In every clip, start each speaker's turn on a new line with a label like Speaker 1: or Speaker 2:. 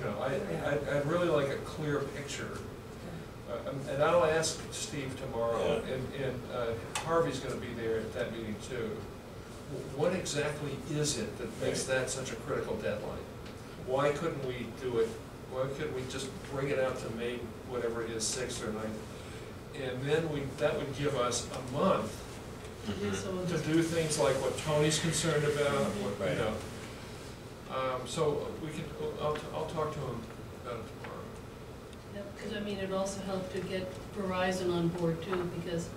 Speaker 1: know, I, I'd, I'd really like a clear picture. Uh, um, And I'll ask Steve tomorrow,
Speaker 2: Yeah.
Speaker 1: and, and uh, Harvey's gonna be there at that meeting too. Wh- What exactly is it that makes
Speaker 2: Right.
Speaker 1: that such a critical deadline? Why couldn't we do it, why couldn't we just bring it out to May, whatever it is, sixth or ninth? And then we, that would give us a month to do things like what Tony's concerned about, what, you
Speaker 2: Right.
Speaker 1: know. Um, so we can, uh, I'll, I'll talk to him about it tomorrow.
Speaker 3: Because I mean, it also helped to get Verizon on board too, because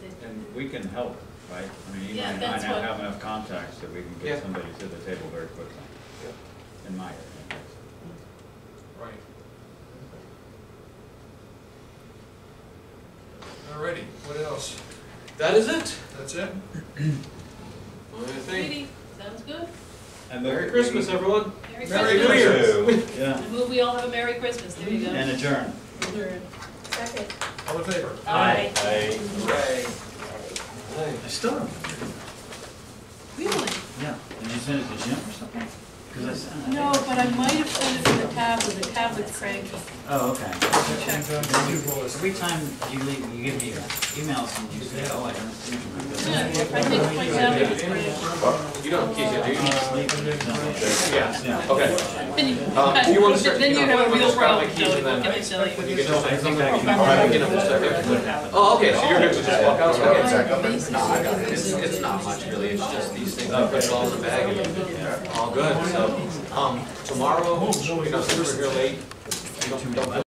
Speaker 3: they,
Speaker 4: And we can help, right? I mean, you
Speaker 3: Yeah,
Speaker 4: might not
Speaker 3: that's
Speaker 4: have
Speaker 3: what-
Speaker 4: have enough contacts that we can
Speaker 1: Yeah.
Speaker 4: get somebody to the table very quickly,
Speaker 1: Yeah.
Speaker 4: in my opinion.
Speaker 1: Right. Alrighty, what else?
Speaker 2: That is it?
Speaker 1: That's it?
Speaker 2: Only thing.
Speaker 3: Sweetie, sounds good.
Speaker 4: And the-
Speaker 2: Merry Christmas, everyone.
Speaker 3: Merry
Speaker 1: Merry
Speaker 3: Christmas.
Speaker 4: Yeah,
Speaker 3: I move we all have a Merry Christmas, there you
Speaker 4: and
Speaker 3: go.
Speaker 4: adjourn.
Speaker 3: Adjourn.
Speaker 5: Second.
Speaker 1: All in favor?
Speaker 3: Aye.
Speaker 2: Aye.
Speaker 1: Hooray.
Speaker 2: Aye.
Speaker 4: I still don't,
Speaker 3: Really?
Speaker 4: yeah, and you sent it to Jim or something? Because I sent it.
Speaker 3: No, but I might have sent it to the tablet, the tablet's cranky.
Speaker 4: Oh, okay.
Speaker 3: Check.
Speaker 4: Every time you leave, you give me your emails and you say, oh, I haven't seen
Speaker 3: Yeah,
Speaker 4: you.
Speaker 3: I think my tablet's cranky.
Speaker 2: You don't have keys yet, do you?
Speaker 4: Yeah. Yeah.
Speaker 2: Okay.
Speaker 3: Then
Speaker 2: Um, do you want to start
Speaker 3: Then you
Speaker 2: picking up?
Speaker 3: have a real
Speaker 2: Just grab my
Speaker 3: problem,
Speaker 2: keys
Speaker 3: Tony,
Speaker 2: and then
Speaker 3: what can I tell
Speaker 2: You
Speaker 3: you?
Speaker 2: get no, I think
Speaker 3: Oh,
Speaker 2: I
Speaker 4: can-
Speaker 2: All right, we can almost start. Oh, okay, so you're good to just walk out?
Speaker 6: Okay.
Speaker 2: Okay.
Speaker 6: Back up and-
Speaker 2: No, I got it. It's, it's not much really, it's uh, just these things, I put it all in the bag and
Speaker 1: Oh,
Speaker 2: all good, so, um, tomorrow, you know, since we're here late, you don't, don't